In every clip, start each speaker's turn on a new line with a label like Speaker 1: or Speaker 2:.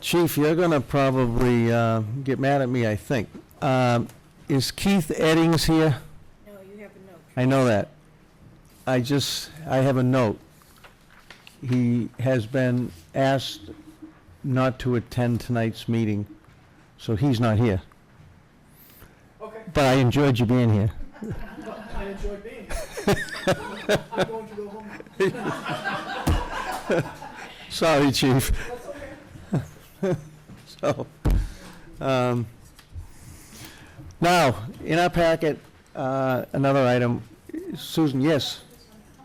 Speaker 1: Chief, you're going to probably uh, get mad at me, I think. Um, Is Keith Eddings here?
Speaker 2: No, you have a note.
Speaker 1: I know that. I just, I have a note. He has been asked not to attend tonight's meeting, so he's not here.
Speaker 3: Okay,
Speaker 1: But I enjoyed you being here.
Speaker 3: well, I enjoyed being here. I'm going to go home. now.
Speaker 1: Sorry, chief. So, um, now, in our packet, uh, another item, Susan, yes?
Speaker 4: How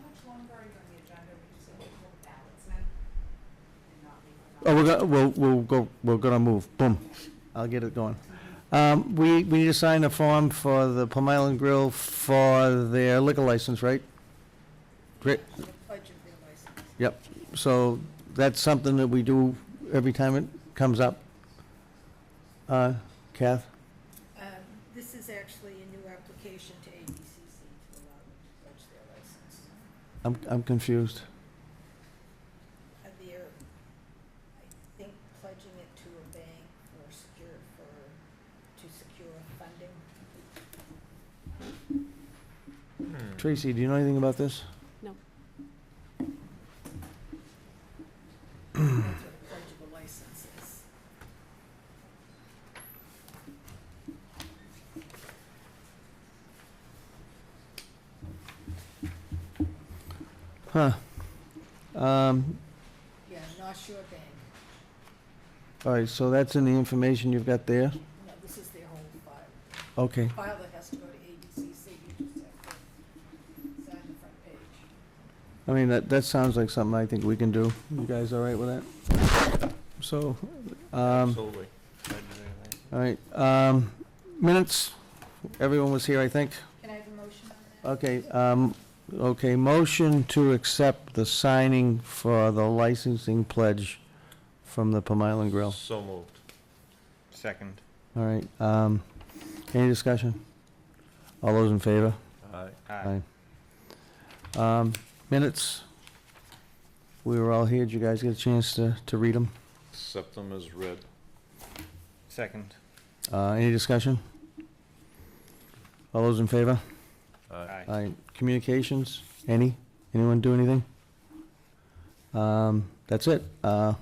Speaker 4: much longer are you on the agenda? We just have to pull the ballots in and not leave them out.
Speaker 1: Oh, we're gonna, we'll, we'll go, we're gonna move, boom, I'll get it going. Um, we, we need to sign a form for the Plum Island Grill for their liquor license, right? Great,
Speaker 2: The pledge of their license.
Speaker 1: yep, so that's something that we do every time it comes up. Uh, Kath?
Speaker 2: Um, This is actually a new application to ABCC to allow them to pledge their license.
Speaker 1: I'm, I'm confused.
Speaker 2: Uh, They're, I think, pledging it to a bank for secure, for, to secure funding.
Speaker 5: Hmm.
Speaker 1: Tracy, do you know anything about this?
Speaker 2: That's what a pledge of a license is.
Speaker 1: Huh. Um,
Speaker 2: Yeah, North Shore Bank.
Speaker 1: all right, so that's in the information you've got there?
Speaker 2: No, this is their whole file.
Speaker 1: Okay,
Speaker 2: File that has to go to ABCC, you just have to sign the front page.
Speaker 1: I mean, that, that sounds like something I think we can do. You guys all right with that? So, um,
Speaker 5: Absolutely.
Speaker 1: all right, um, minutes, everyone was here, I think.
Speaker 2: Can I have a motion on that?
Speaker 1: Okay, um, okay, motion to accept the signing for the licensing pledge from the Plum Island Grill.
Speaker 5: So moved.
Speaker 3: Second.
Speaker 1: All right, um, any discussion? All those in favor?
Speaker 5: Aye.
Speaker 1: Aye. Um, Minutes. We were all here. Did you guys get a chance to, to read them?
Speaker 5: Accept them as read.
Speaker 3: Second.
Speaker 1: Uh, any discussion? All those in favor?
Speaker 5: Aye.
Speaker 1: Aye. Communications? Any? Anyone do anything? Um, that's it. Uh,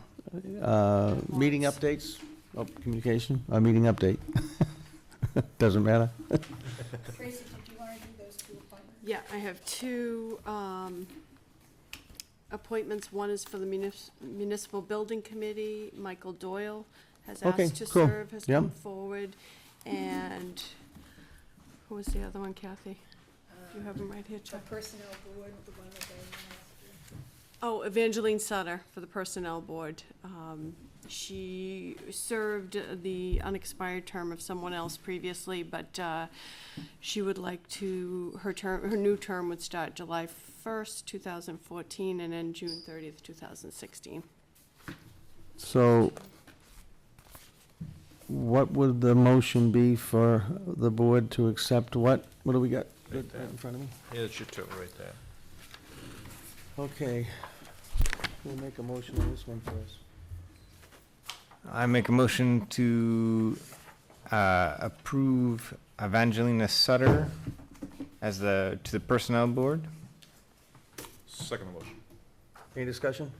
Speaker 1: uh, meeting updates? Oh, communication, uh, meeting update. Doesn't matter.
Speaker 2: Tracy, did you want to do those two appointments?
Speaker 4: Yeah, I have two um, appointments. One is for the munis- Municipal Building Committee. Michael Doyle has
Speaker 1: Okay,
Speaker 4: asked to
Speaker 1: cool.
Speaker 4: serve, has
Speaker 1: Yep.
Speaker 4: come forward. And who was the other one, Kathy? You have them right here,
Speaker 2: Uh, The
Speaker 4: Chuck.
Speaker 2: personnel board, the one that they,
Speaker 4: Oh, Evangeline Sutter for the Personnel Board. Um, She served the unexpired term of someone else previously, but uh, she would like to, her term, her new term would start July 1st, 2014, and end June 30th, 2016.
Speaker 1: So what would the motion be for the board to accept what? What do we got right in front of me?
Speaker 5: Yeah, it's your two right there.
Speaker 1: Okay. We'll make a motion on this one first.
Speaker 3: I make a motion to uh, approve Evangelina Sutter as the, to the Personnel Board.
Speaker 5: Second motion.
Speaker 1: Any discussion?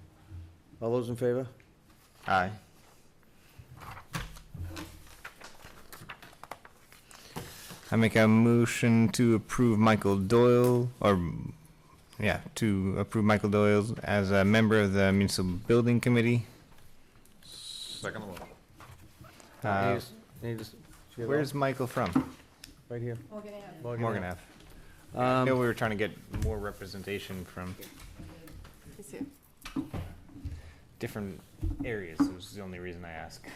Speaker 1: All those in favor?
Speaker 3: Aye. I make a motion to approve Michael Doyle, or, yeah, to approve Michael Doyle as a member of the Municipal Building Committee.
Speaker 5: Second motion.
Speaker 1: Any
Speaker 3: Uh,
Speaker 1: dis- any dis- she has all-
Speaker 3: Where's Michael from?
Speaker 1: Right here.
Speaker 2: were going to have.
Speaker 3: Morgan Ave. I know
Speaker 1: Um,
Speaker 3: we were trying to get more representation from
Speaker 4: Is it-
Speaker 3: different areas, It was the only reason I asked.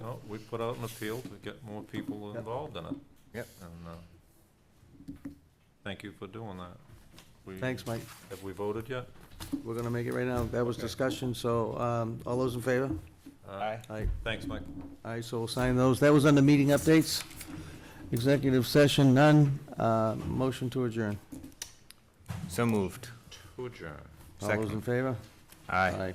Speaker 5: No, we put out an appeal to get more people
Speaker 1: Yep.
Speaker 5: involved in it.
Speaker 3: Yep.
Speaker 5: And, uh, thank you for doing that. We-
Speaker 1: Thanks, Mike.
Speaker 5: Have we voted yet?
Speaker 1: We're gonna make it right now. That was discussion, so, um, all those in favor?
Speaker 5: Aye.
Speaker 1: Aye.
Speaker 5: Uh, Thanks, Mike.
Speaker 1: All right, so we'll sign those. That was under meeting updates. Executive session, none. Uh, motion to adjourn.
Speaker 3: So moved.
Speaker 5: To adjourn.
Speaker 1: All those
Speaker 3: Second.
Speaker 1: in favor?
Speaker 3: Aye.
Speaker 1: Aye.